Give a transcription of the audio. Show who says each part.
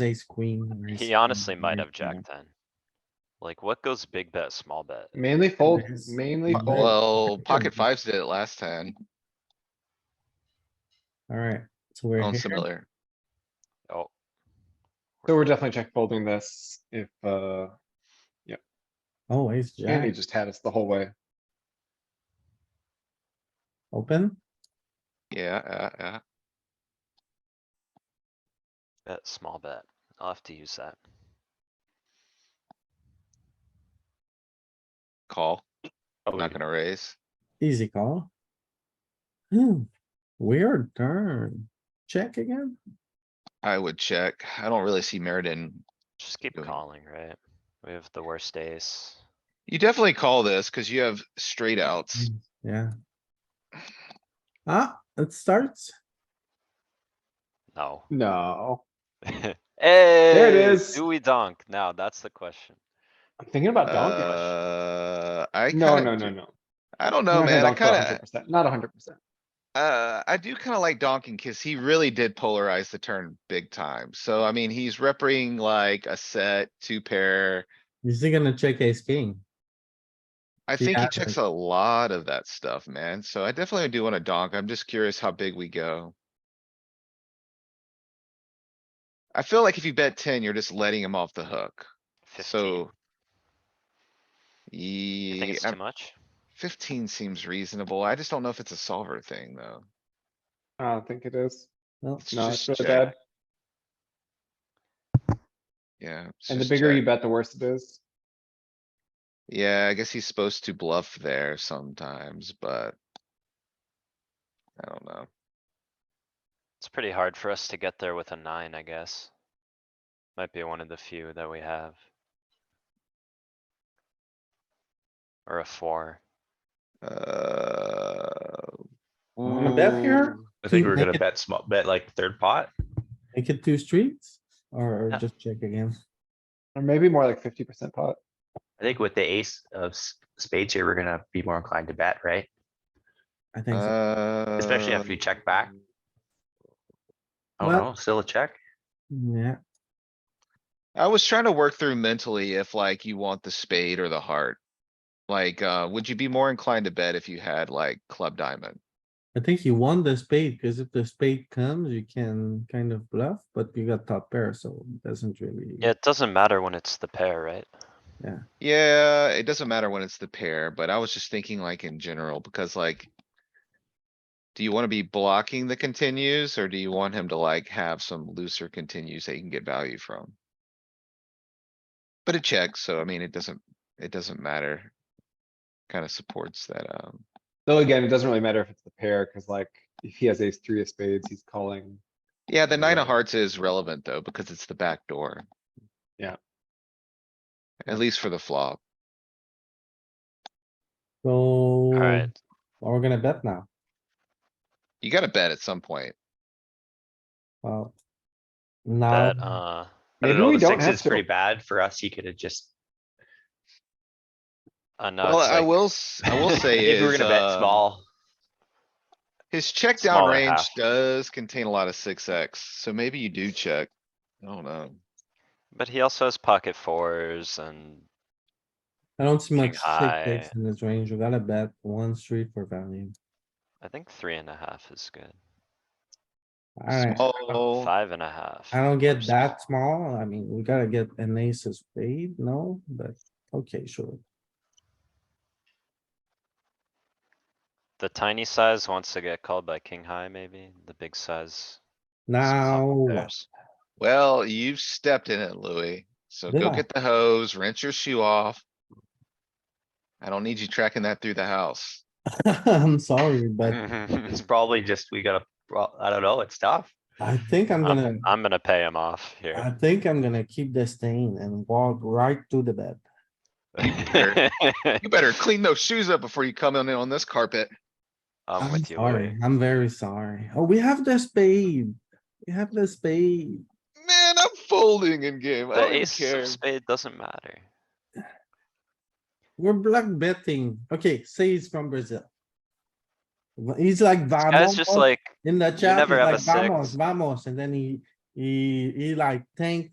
Speaker 1: ace, queen. or ace
Speaker 2: He
Speaker 1: king,
Speaker 2: honestly might
Speaker 1: or
Speaker 2: have jack
Speaker 1: something.
Speaker 2: ten. Like, what goes big bet, small bet?
Speaker 3: Mainly fold,
Speaker 1: Yes.
Speaker 3: mainly
Speaker 1: But-
Speaker 3: fold.
Speaker 4: Well, pocket
Speaker 1: Mhm.
Speaker 4: fives did it last time
Speaker 1: Alright, so we're
Speaker 4: on
Speaker 1: here.
Speaker 4: similar.
Speaker 2: Oh,
Speaker 3: So we're definitely check folding this if, uh,
Speaker 1: Oh, ace,
Speaker 3: Andy
Speaker 1: jack,
Speaker 3: just had us the whole way.
Speaker 1: open.
Speaker 4: Yeah, yeah, yeah.
Speaker 2: bet, small bet. I'll have to use that.
Speaker 4: Call.
Speaker 2: Oh,
Speaker 4: I'm not gonna raise.
Speaker 1: Easy call. Hmm, weird turn. Check again?
Speaker 4: I would check. I don't really see merit in.
Speaker 2: Just keep
Speaker 4: Doing it.
Speaker 2: calling, right? We have the worst ace.
Speaker 4: You definitely call this cuz you have straight outs.
Speaker 1: Yeah. Ah, it starts.
Speaker 2: No.
Speaker 3: No,
Speaker 2: Hey,
Speaker 3: is.
Speaker 2: Do we dunk? Now, that's the question.
Speaker 3: I'm thinking about donkish.
Speaker 4: Uh, I
Speaker 3: No, no,
Speaker 4: kinda,
Speaker 3: no, no.
Speaker 4: I don't
Speaker 3: I'm
Speaker 4: know,
Speaker 3: not gonna
Speaker 4: man. I
Speaker 3: donk for a hundred
Speaker 4: kinda,
Speaker 3: percent, Not a hundred percent.
Speaker 4: uh, I do kinda like donking cuz he really did polarize the turn big time. So I mean, he's repping like a set, two pair.
Speaker 1: Is he gonna check ace, king?
Speaker 4: I
Speaker 1: He
Speaker 4: think he
Speaker 1: has
Speaker 4: checks
Speaker 1: it.
Speaker 4: a lot of that stuff, man. So I definitely do wanna donk. I'm just curious how big we go. I feel like if you bet ten, you're just letting him off the hook,
Speaker 2: Fifteen.
Speaker 4: so.
Speaker 2: You think
Speaker 4: Yeah,
Speaker 2: it's too much?
Speaker 4: fifteen seems reasonable. I just don't know if it's a solver thing, though.
Speaker 3: I don't think it is.
Speaker 1: No,
Speaker 4: It's
Speaker 3: No, it's
Speaker 4: just
Speaker 3: really
Speaker 4: check.
Speaker 3: bad.
Speaker 4: Yeah. it's
Speaker 3: And the
Speaker 4: just
Speaker 3: bigger you
Speaker 4: check.
Speaker 3: bet, the worse it is.
Speaker 4: Yeah, I guess he's supposed to bluff there sometimes, but. I don't know.
Speaker 2: It's pretty hard for us to get there with a nine, I guess. Might be one of the few that we have. Or a four.
Speaker 4: Uh.
Speaker 1: Wanna bet here?
Speaker 4: ooh.
Speaker 5: I think
Speaker 1: Keep
Speaker 5: we're gonna
Speaker 1: making-
Speaker 5: bet small, bet like third pot.
Speaker 1: Make it two streets or or
Speaker 2: Yeah.
Speaker 1: just check again?
Speaker 3: Or maybe more like fifty percent pot.
Speaker 5: I think with the ace of s- spades here, we're gonna be more inclined to bet, right?
Speaker 1: I think
Speaker 5: Uh,
Speaker 1: so.
Speaker 4: Uh,
Speaker 5: Especially after you check back. Oh
Speaker 1: Well-
Speaker 5: no, still a check?
Speaker 1: Yeah,
Speaker 4: I was trying to work through mentally if like you want the spade or the heart. Like, uh, would you be more inclined to bet if you had like club diamond?
Speaker 1: I think you won the spade, cause if the spade comes, you can kind of bluff, but you got top pair, so it doesn't really.
Speaker 2: Yeah, it doesn't matter when it's the pair, right?
Speaker 4: Yeah, it doesn't matter when it's the pair, but I was just thinking like in general, because like. Do you wanna be blocking the continues or do you want him to like have some looser continues that you can get value from? But it checks, so I mean, it doesn't, it doesn't matter. Kinda supports that, um.
Speaker 3: Though again, it doesn't really matter if it's the pair, cuz like if he has ace three of spades, he's calling.
Speaker 4: Yeah, the nine
Speaker 3: Right.
Speaker 4: of hearts is relevant though, because it's the back door.
Speaker 3: Yeah.
Speaker 4: At least for the flop.
Speaker 1: So.
Speaker 2: Alright,
Speaker 1: Well, we're gonna bet now.
Speaker 4: You gotta bet at some point.
Speaker 1: Well. Um,
Speaker 2: that,
Speaker 1: Now,
Speaker 2: uh,
Speaker 5: I don't
Speaker 3: Maybe
Speaker 5: know,
Speaker 3: we
Speaker 5: the
Speaker 3: don't
Speaker 5: six
Speaker 3: have
Speaker 5: is pretty
Speaker 3: to.
Speaker 5: bad for us. He could have just,
Speaker 2: I know.
Speaker 4: Well,
Speaker 2: uh, it's
Speaker 4: I
Speaker 2: like-
Speaker 4: will, s- I will say
Speaker 5: if we were
Speaker 4: is,
Speaker 5: gonna bet
Speaker 4: uh,
Speaker 5: small,
Speaker 4: his check down
Speaker 2: smaller
Speaker 4: range
Speaker 2: half.
Speaker 4: does contain a lot of six X, so maybe you do check. I don't know.
Speaker 2: But he also has pocket fours and
Speaker 1: I don't see much
Speaker 2: think I-
Speaker 1: six X in this range. We gotta bet one street for value.
Speaker 2: I think three and a half is good.
Speaker 1: Alright,
Speaker 4: Small,
Speaker 2: Five and a half.
Speaker 1: I don't get
Speaker 2: versus-
Speaker 1: that small. I mean, we gotta get an ace of spade, no, but okay, sure.
Speaker 2: The tiny size wants to get called by king high, maybe. The big size. is
Speaker 1: Now,
Speaker 2: called by
Speaker 1: what?
Speaker 2: pairs.
Speaker 4: well, you've stepped in it, Louis, so
Speaker 1: Did
Speaker 4: go
Speaker 1: I?
Speaker 4: get the hose, rinse your shoe off. I don't need you tracking that through the house.
Speaker 1: I'm sorry,
Speaker 2: Mm.
Speaker 1: but
Speaker 5: it's
Speaker 2: I'm
Speaker 5: probably just, we gotta, pro- I don't know, it's tough.
Speaker 1: I think I'm gonna,
Speaker 2: I'm gonna pay him off
Speaker 1: I
Speaker 2: here.
Speaker 1: think I'm gonna keep this thing and walk right to the bed.
Speaker 4: You better clean those shoes up before you come in on this carpet.
Speaker 2: I'm with you,
Speaker 1: Sorry,
Speaker 2: Louis.
Speaker 1: I'm very sorry. Oh, we have the spade. We have the spade.
Speaker 4: Man, I'm folding in game. I
Speaker 2: The
Speaker 4: don't even
Speaker 2: ace
Speaker 4: care.
Speaker 2: of spade doesn't matter.
Speaker 1: We're block betting. Okay, say he's from Brazil. Wha- He's like
Speaker 2: This guy's
Speaker 1: vamos
Speaker 2: just like.
Speaker 1: in the chat, he's
Speaker 2: never have a
Speaker 1: like vamos,
Speaker 2: six.
Speaker 1: vamos, and then he, he, he like tanked